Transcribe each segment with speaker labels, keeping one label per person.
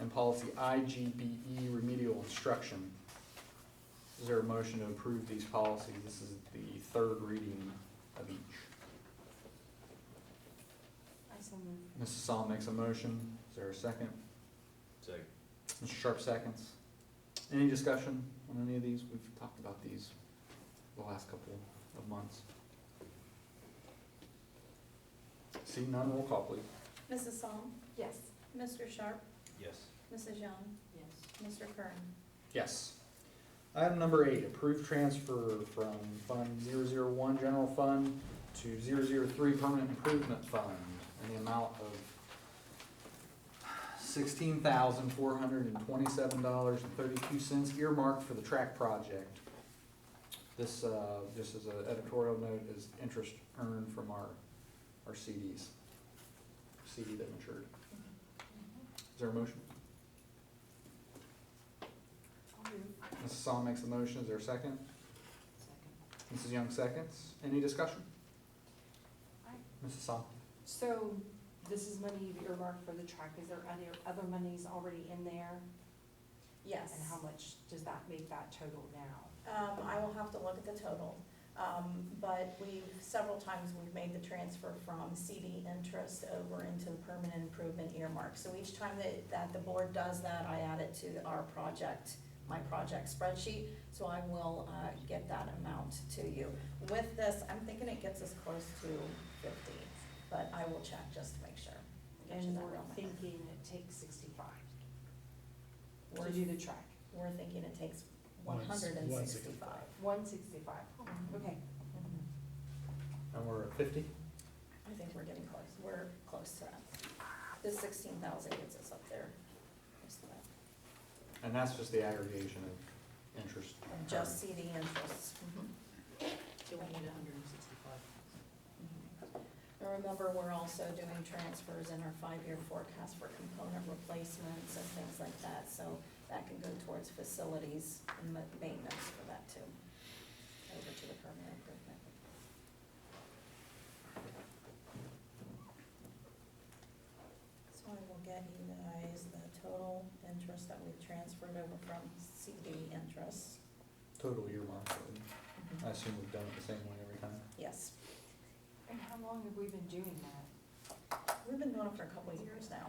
Speaker 1: and policy IGBE E remedial instruction. Is there a motion to approve these policies? This is the third reading of each.
Speaker 2: I so move.
Speaker 1: Mrs. Psalm makes a motion. Is there a second?
Speaker 3: Second.
Speaker 1: Mr. Sharp seconds. Any discussion on any of these? We've talked about these the last couple of months. See none, roll call please.
Speaker 4: Mrs. Psalm?
Speaker 2: Yes.
Speaker 4: Mr. Sharp?
Speaker 3: Yes.
Speaker 4: Mrs. Young?
Speaker 2: Yes.
Speaker 4: Mr. Kern?
Speaker 1: Yes. Item number eight, approve transfer from Fund 001 General Fund to 003 Permanent Improvement Fund in the amount of sixteen thousand four hundred and twenty-seven dollars and thirty-two cents earmarked for the track project. This, uh, just as an editorial note, is interest earned from our, our CDs, CD that matured.
Speaker 2: Mm-hmm.
Speaker 1: Is there a motion?
Speaker 2: I'll move.
Speaker 1: Mrs. Psalm makes a motion, is there a second?
Speaker 2: Second.
Speaker 1: Mrs. Young seconds. Any discussion?
Speaker 2: Aye.
Speaker 1: Mrs. Psalm?
Speaker 2: So this is money you've earmarked for the track. Is there other, other monies already in there?
Speaker 4: Yes.
Speaker 2: And how much does that make that total now?
Speaker 4: Um, I will have to look at the total, um, but we've, several times we've made the transfer from CD interest over into the permanent improvement earmark. So each time that, that the board does that, I add it to our project, my project spreadsheet, so I will, uh, get that amount to you.
Speaker 2: With this, I'm thinking it gets us close to fifty, but I will check just to make sure.
Speaker 4: you
Speaker 2: And
Speaker 4: that
Speaker 2: we're
Speaker 4: real number.
Speaker 2: thinking it takes sixty-five
Speaker 4: We're-
Speaker 2: to do the track.
Speaker 4: We're thinking it takes
Speaker 5: One-
Speaker 4: one hundred and sixty-five.
Speaker 5: 165.
Speaker 2: One sixty-five, okay.
Speaker 4: Mhm.
Speaker 1: And we're at fifty?
Speaker 4: I think we're getting close, we're close to that. The sixteen thousand gets us up there. Just that.
Speaker 1: And that's just the aggregation of interest.
Speaker 4: And Just CD interests.
Speaker 2: Do we need hundred and sixty-five?
Speaker 4: And remember, we're also doing transfers in our five-year forecast for component replacements and things like that. So that can go towards facilities and ma- maintenance for that too, over to the permanent improvement. So I will get you guys the total interest that we've transferred over from CD interest.
Speaker 1: Total earmark. I assume we've done it the same way every time.
Speaker 4: Yes,
Speaker 2: And how long have we been doing that?
Speaker 4: we've been doing it for a couple of years now.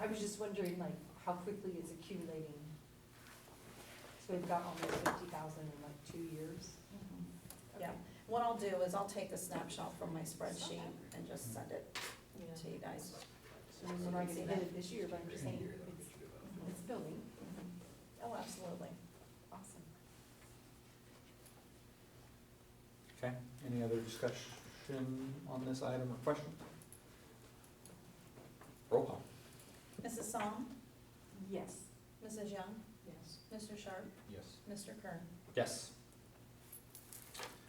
Speaker 2: I was just wondering, like, how quickly it's accumulating. So we've got almost fifty thousand in like two years.
Speaker 4: Mm-hmm. Yeah. What I'll do is I'll take a snapshot from my spreadsheet and just send it to you guys.
Speaker 2: So we're not gonna hit it this year, but I'm just saying, it's, it's building,
Speaker 4: Oh, absolutely.
Speaker 2: Mm-hmm. awesome.
Speaker 1: Okay, any other discussion on this item or question? Roll call.
Speaker 4: Mrs. Psalm,
Speaker 2: Yes.
Speaker 4: Mrs. Young,
Speaker 2: Yes.
Speaker 4: Mr. Sharp,
Speaker 3: Yes.
Speaker 4: Mr. Kern.
Speaker 1: Yes.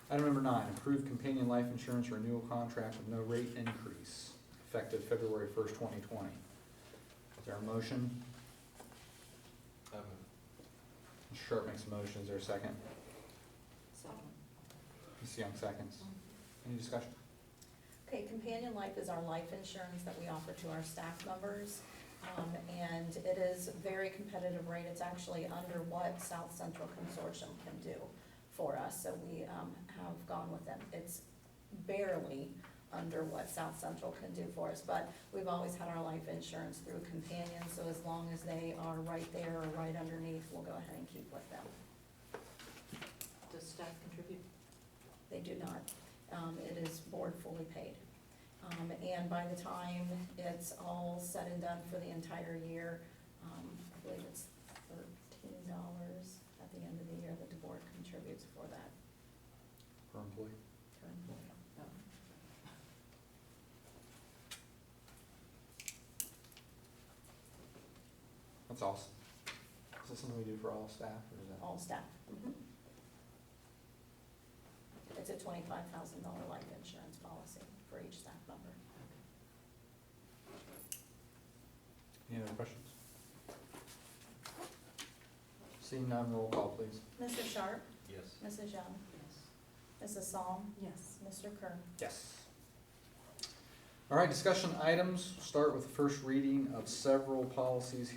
Speaker 1: Item number nine, approve companion life insurance renewal contract with no rate increase effective February first, twenty twenty. Is there a motion?
Speaker 3: I move.
Speaker 1: Sharp makes a motion, is there a second? Ms. Young seconds. Any discussion?
Speaker 4: Okay, Companion Life is our life insurance that we offer to our staff members. Um, and it is very competitive rate. It's actually under what South Central Consortium can do for us. So we, um, have gone with them. It's barely under what South Central can do for us. But we've always had our life insurance through Companion, so as long as they are right there or right underneath, we'll go ahead and keep with them.
Speaker 2: Does staff contribute?
Speaker 4: They do not. Um, it is board fully paid. Um, and by the time it's all said and done for the entire year, um, I believe it's thirteen dollars at the end of the year that the board contributes for that
Speaker 1: Per employee.
Speaker 4: per employee.
Speaker 1: That's awesome. Is that something we do for all staff or is that?
Speaker 4: all staff. It's a twenty-five thousand dollar life insurance policy for each staff member.
Speaker 1: Any other questions? Seeing none, roll call please.
Speaker 4: Mr. Sharp,
Speaker 3: Yes.
Speaker 4: Mrs. Young, Mrs. Psalm,
Speaker 2: Yes.
Speaker 4: Mr. Kern.
Speaker 1: Yes. All right, discussion items. Start with the first reading of several policies